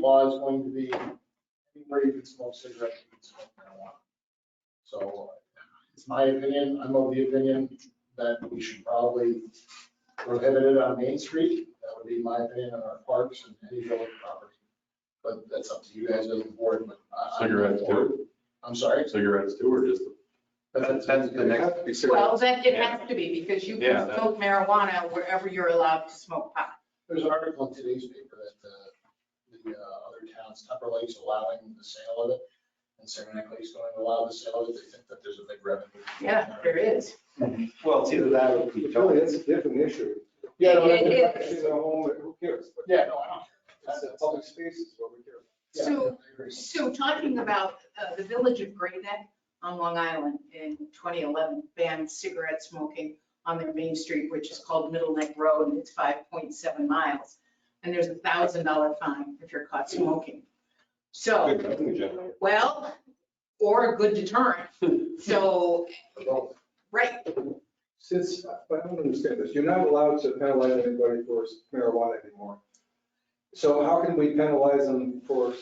law is going to be anywhere you can smoke cigarettes, you can smoke marijuana. So it's my opinion, I'm of the opinion that we should probably prohibit it on Main Street. That would be my opinion on our parks and any village property. But that's up to you guys as a board, but I. I'm Cigarettes, too. I'm sorry. Cigarettes too, or just? That's, that's the next. it'd be Well, cigarettes. then it has to be because you Yeah, can that- smoke marijuana wherever you're allowed to smoke pot. There's an article in today's paper that uh, the uh, other towns, Tupper Lake's allowing the sale of it. And Saranac Lake's going to allow the sale of it. They think that there's a big revenue. Yeah, there is. Well, it's either that or. But Really, that's a different issue. Yeah, no, It I- is. It's a home, who cares? But yeah, no, I don't. It's a public space is what we care. Yeah, So- I agree. So talking about uh, the village of Great Neck on Long Island in 2011 banned cigarette smoking on their main street, which is called Middle Neck Road, and it's 5.7 miles. And there's a $1,000 fine if you're caught smoking. So, Good revenue generator. well, or a good deterrent. So, Well, right, Since, but I don't understand this, you're not allowed to penalize anybody for marijuana anymore. So how can we penalize them for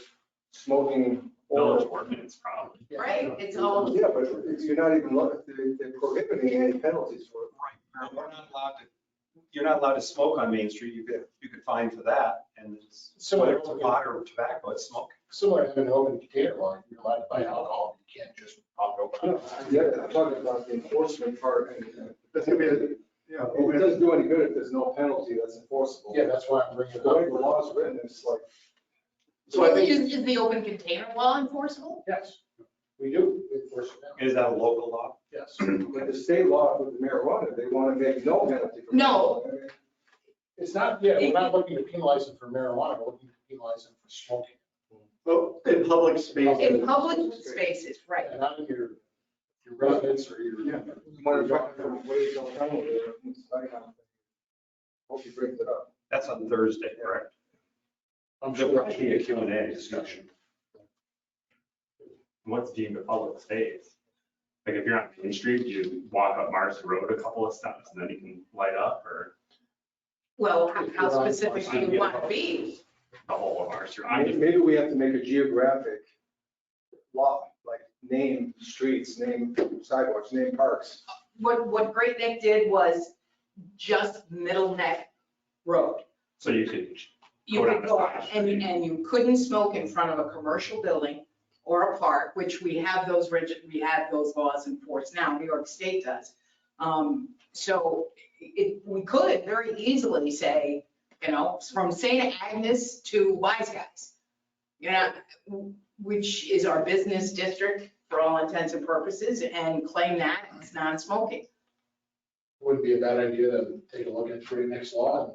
smoking Village or? ordinance, probably. yeah, right, it's all, Yeah, but it's- you're not even, look- they- they're prohibiting any penalties for it. Right, we're not allowed to, you're not allowed to smoke on Main Street, you could, you could fine for that, and it's, whether it's pot or tobacco, it's smoke. Similar to an open container law, you're allowed to buy alcohol, you can't just pop it I open. don't- I get it. I'm talking about the enforcement part and. uh, That's gonna be, a- yeah, It doesn't do any good if there's no penalty that's enforceable. Yeah, that's why I'm bringing it The way the up. law's written, it's like, So I think, is, is the open container law enforceable? yes, we do enforce it now. Is that a local law? Yes. But the state law with marijuana, they want to make no penalty. for No. marijuana. It's not, yeah, we're not looking to penalize them for marijuana, we're looking to penalize them for smoking. well, in public space, In public spaces, right. And not in your, your residence or your. Yeah. We want to talk about what is going on with it. It's like, um, Hope he brings it up. That's on Thursday, correct? I'm There sure. will be a Q and A discussion. What's deemed a public space? Like if you're on Main Street, you walk up Mars Road a couple of steps and then you can light up or Well, how- how specific do uh, you want to be? the whole of Mars. Road. I'm May- just- Maybe we have to make a geographic law, like name streets, name sidewalks, name parks. What, what Great Neck did was just Middle Neck Road. So you could, You Go could down go, the side. and, and you couldn't smoke in front of a commercial building or a park, which we have those rigid, we have those laws in force now, New York State does. Um, So it, we could very easily say, you know, from St. Agnes to Wise Guys. You know, which is our business district for all intents and purposes, and claim that it's non-smoking. Wouldn't be a bad idea to take a look at the next law and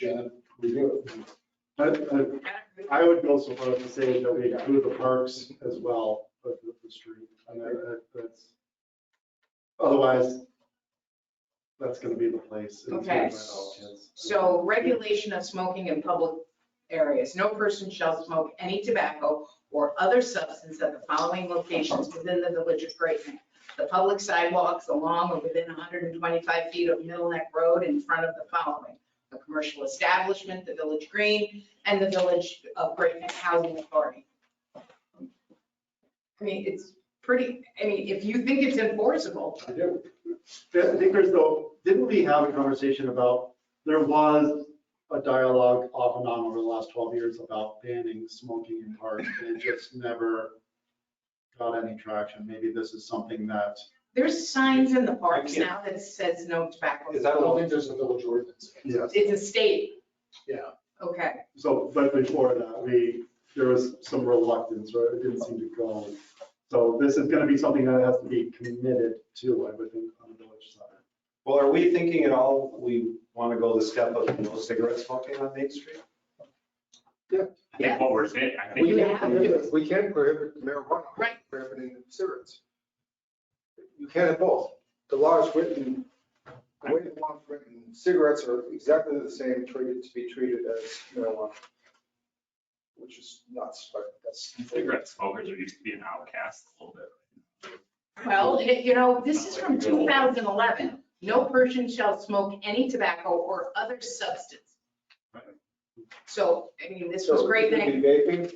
Janet review it. I, I- I would go so far as to say that we include the parks as well, but with the street. And I- I- that's- Otherwise, that's gonna be the place. It's Okay. my all kids. So regulation of smoking in public areas. No person shall smoke any tobacco or other substance at the following locations within the village of Great Neck. The public sidewalks along or within 125 feet of Middle Neck Road in front of the following. The commercial establishment, the village green, and the village of Great Neck Housing Authority. I mean, it's pretty, I mean, if you think it's enforceable, I do. Yeah, I think there's though, didn't we have a conversation about, there was a dialogue off and on over the last twelve years about banning smoking in parks, and it just never got any traction. Maybe this is something that, there's signs in the parks now that says no tobacco. Is I that don't a, think there's a village ordinance. yes, It's a state. Yeah. Okay, so, but before that, we, there was some reluctance, right? It didn't seem to go. So this is gonna be something that has to be committed to, I would think, on the village side. Well, are we thinking at all, we want to go the step of no cigarette smoking on Main Street? I think what we're saying, I think, we you can have prohibit- we can prohibit marijuana. we're Right. Prohibiting cigarettes. You can have both. The law is written, the way the law is written, cigarettes are exactly the same treated, to be treated as marijuana. Which is nuts, but that's. cigarette smokers are used to be an outcast a little bit. well, it- you know, this is from 2011. No person shall smoke any tobacco or other substance. So, I mean, this was great, So thank it could be Vaping,